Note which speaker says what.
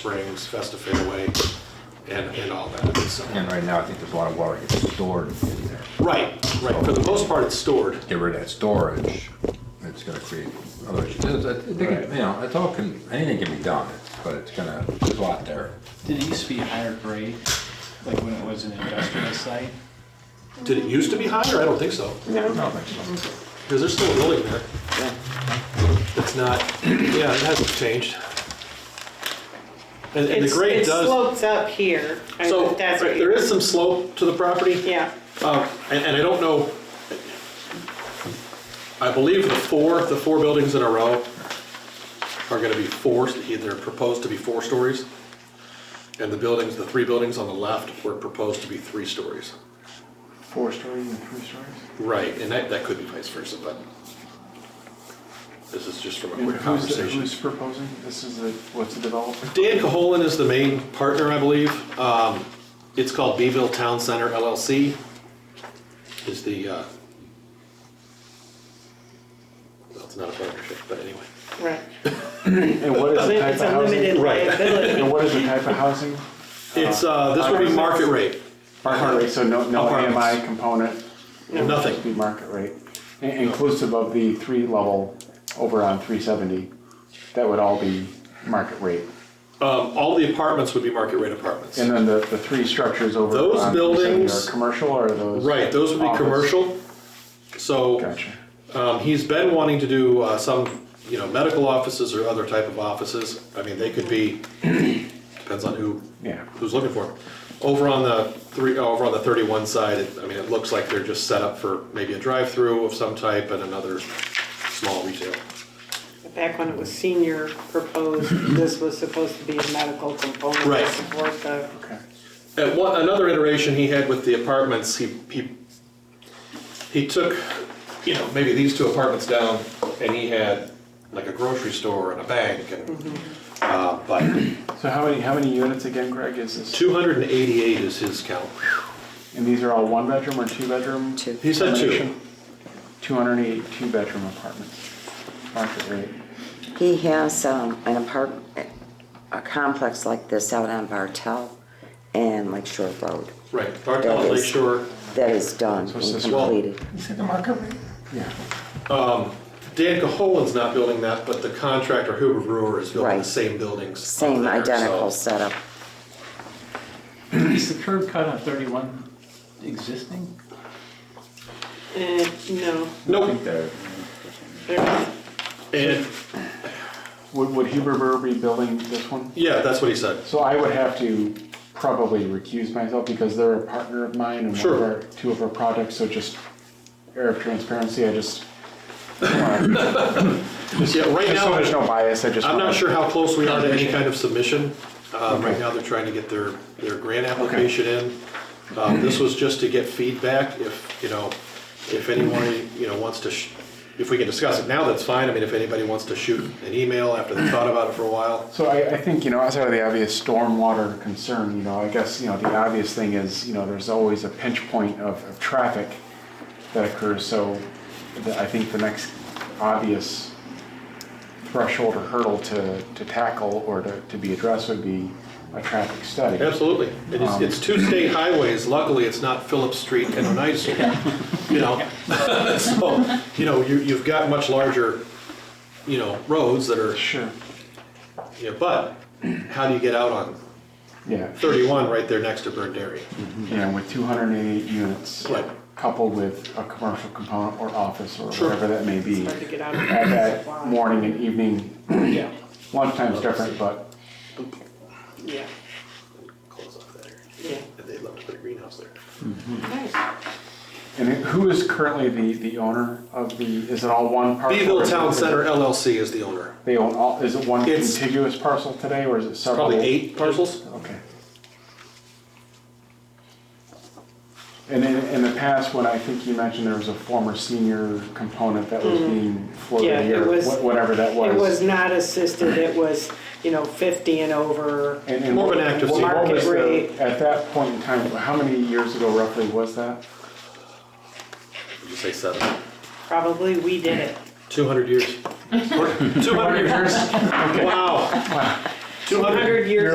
Speaker 1: Springs, Festa Fairway, and, and all that, uh, so.
Speaker 2: And right now, I think there's a lot of water gets stored in there.
Speaker 1: Right, right, for the most part, it's stored.
Speaker 2: Get rid of that storage, it's gonna create other issues. It's- it's- they can- You know, it's all, can- anything can be done, but it's gonna, there's a lot there.
Speaker 3: Did it used to be higher grade, like when it was an industrial site?
Speaker 1: Did it used to be higher? I don't think so,
Speaker 2: No. I think so.
Speaker 1: because there's still a building there. It's not, yeah, it hasn't changed. And, and the
Speaker 4: It's-
Speaker 1: grade
Speaker 4: It
Speaker 1: does,
Speaker 4: slopes up here. I-
Speaker 1: so,
Speaker 4: that's what
Speaker 1: right,
Speaker 4: you-
Speaker 1: there is some slope to the property.
Speaker 4: Yeah,
Speaker 1: Um, And and I don't know, I believe the four, the four buildings in a row are going to be four, they're proposed to be four stories. And the buildings, the three buildings on the left were proposed to be three stories.
Speaker 5: Four stories and three stories?
Speaker 1: Right, and that, that could be vice versa, but this is just from a
Speaker 5: And
Speaker 1: quick
Speaker 5: who's, the-
Speaker 1: conversation.
Speaker 5: who's proposing? This is the, what's the developer?
Speaker 1: Dan Caholen is the main partner, I believe. Um, It's called Beeville Town Center LLC. Is the, uh, well, it's not a partnership, but anyway.
Speaker 4: right.
Speaker 5: And what is the type
Speaker 4: It's
Speaker 5: of
Speaker 4: a limited
Speaker 5: housing?
Speaker 1: Right.
Speaker 4: liability.
Speaker 5: And what is the type of housing?
Speaker 1: It's, uh, this would be market rate.
Speaker 5: Market rate, so no, no
Speaker 1: Apartments.
Speaker 5: AMI component?
Speaker 1: No,
Speaker 5: It would just
Speaker 1: Nothing.
Speaker 5: be market rate, In- inclusive of the three level over on three seventy. That would all be market rate.
Speaker 1: Um, All the apartments would be market rate apartments.
Speaker 5: And then the, the three structures over
Speaker 1: Those
Speaker 5: on 370
Speaker 1: buildings-
Speaker 5: are commercial or are those?
Speaker 1: Right, those would be
Speaker 5: office?
Speaker 1: commercial. So.
Speaker 5: Gotcha.
Speaker 1: Um, he's been wanting to do uh, some, you know, medical offices or other type of offices. I mean, they could be, depends on who,
Speaker 5: Yeah.
Speaker 1: who's looking for them. Over on the three, uh, over on the thirty-one side, it- I mean, it looks like they're just set up for maybe a drive-through of some type and another small retail.
Speaker 4: Back when it was senior proposed, this was supposed to be a medical component
Speaker 1: Right.
Speaker 4: to support the,
Speaker 5: Okay.
Speaker 1: At one, another iteration he had with the apartments, he, he, he took, you know, maybe these two apartments down, and he had like a grocery store and a bank and, uh, but
Speaker 5: So how many, how many units again, Greg, is this?
Speaker 1: two hundred and eighty-eight is his count.
Speaker 5: And these are all one bedroom or two bedroom? Two.
Speaker 1: He said two.
Speaker 5: Two hundred and eight two bedroom apartments, market rate.
Speaker 6: He has um, an apartment, a complex like this out on Bartel and Lake Shore Road
Speaker 1: Right, Bartel, Lake Shore.
Speaker 6: that is done
Speaker 5: So it's
Speaker 6: and
Speaker 5: this wall.
Speaker 6: completed.
Speaker 5: Yeah.
Speaker 1: Dan Caholen's not building that, but the contractor Huber Brewer is building the
Speaker 6: Right.
Speaker 1: same buildings. up
Speaker 6: Same
Speaker 1: there, so-
Speaker 6: identical setup.
Speaker 3: Is the curb cut on thirty-one existing?
Speaker 4: eh, no.
Speaker 2: I
Speaker 1: Nope,
Speaker 2: think that,
Speaker 4: There's-
Speaker 1: and,
Speaker 5: Would, would Huber Brewer be building this one?
Speaker 1: yeah, that's what he said.
Speaker 5: So I would have to probably recuse myself because they're a partner of mine and one
Speaker 1: Sure.
Speaker 5: of our, two of our projects, so just air of transparency, I just. Yeah,
Speaker 1: Yeah, right
Speaker 5: Just so
Speaker 1: now,
Speaker 5: there's no bias, I just.
Speaker 1: I'm not
Speaker 5: wanna-
Speaker 1: sure how close we are to any kind of submission. Um, Right
Speaker 5: Okay.
Speaker 1: now, they're trying to get their, their grant application in. Um, This was just to get feedback, if, you know, if anyone, you know, wants to, sh- if we can discuss it now, that's fine. I mean, if anybody wants to shoot an email after they've thought about it for a while,
Speaker 5: So I, I think, you know, outside of the obvious stormwater concern, you know, I guess, you know, the obvious thing is, you know, there's always a pinch point of, of traffic that occurs, so the- I think the next obvious threshold or hurdle to, to tackle or to, to be addressed would be a traffic study.
Speaker 1: Absolutely. It is, it's two state highways. Luckily, it's not Phillips Street and Oneida Street, you know? So, you know, you, you've got much larger, you know, roads that are,
Speaker 5: Sure,
Speaker 1: yeah, but how do you get out on
Speaker 5: yeah,
Speaker 1: thirty-one right there next to Burn Dairy?
Speaker 5: and with two hundred and eighty-eight units
Speaker 1: Right.
Speaker 5: coupled with a commercial component or office or
Speaker 1: Sure.
Speaker 5: whatever that may be.
Speaker 4: It's hard to get out of
Speaker 5: At
Speaker 4: that
Speaker 5: that
Speaker 4: supply.
Speaker 5: morning and evening,
Speaker 4: Yeah,
Speaker 5: lunchtime's different, but
Speaker 4: yeah,
Speaker 1: Close off that area.
Speaker 4: yeah.
Speaker 1: And they'd love to put a greenhouse there.
Speaker 5: And who is currently the, the owner of the, is it all one parcel?
Speaker 1: Beeville Town Center LLC is the owner.
Speaker 5: They own all, is it one
Speaker 1: It's-
Speaker 5: contiguous parcel today, or is it several?
Speaker 1: Probably eight parcels?
Speaker 5: Okay. And in, in the past, when I think you mentioned there was a former senior component that was being
Speaker 4: Mm. Yeah,
Speaker 5: floated
Speaker 4: it
Speaker 5: here,
Speaker 4: was-
Speaker 5: wha- whatever that
Speaker 4: It was
Speaker 5: was.
Speaker 4: not assisted, it was, you know, 50 and over.
Speaker 5: And- and
Speaker 1: more of an
Speaker 5: what-
Speaker 1: active
Speaker 5: what
Speaker 1: senior.
Speaker 4: Market
Speaker 5: was the-
Speaker 4: rate.
Speaker 5: At that point in time, how many years ago roughly was that?
Speaker 1: Would you say seven?
Speaker 4: Probably we did it.
Speaker 1: Two hundred years. Two hundred years? Wow. Two hundred
Speaker 4: 100 years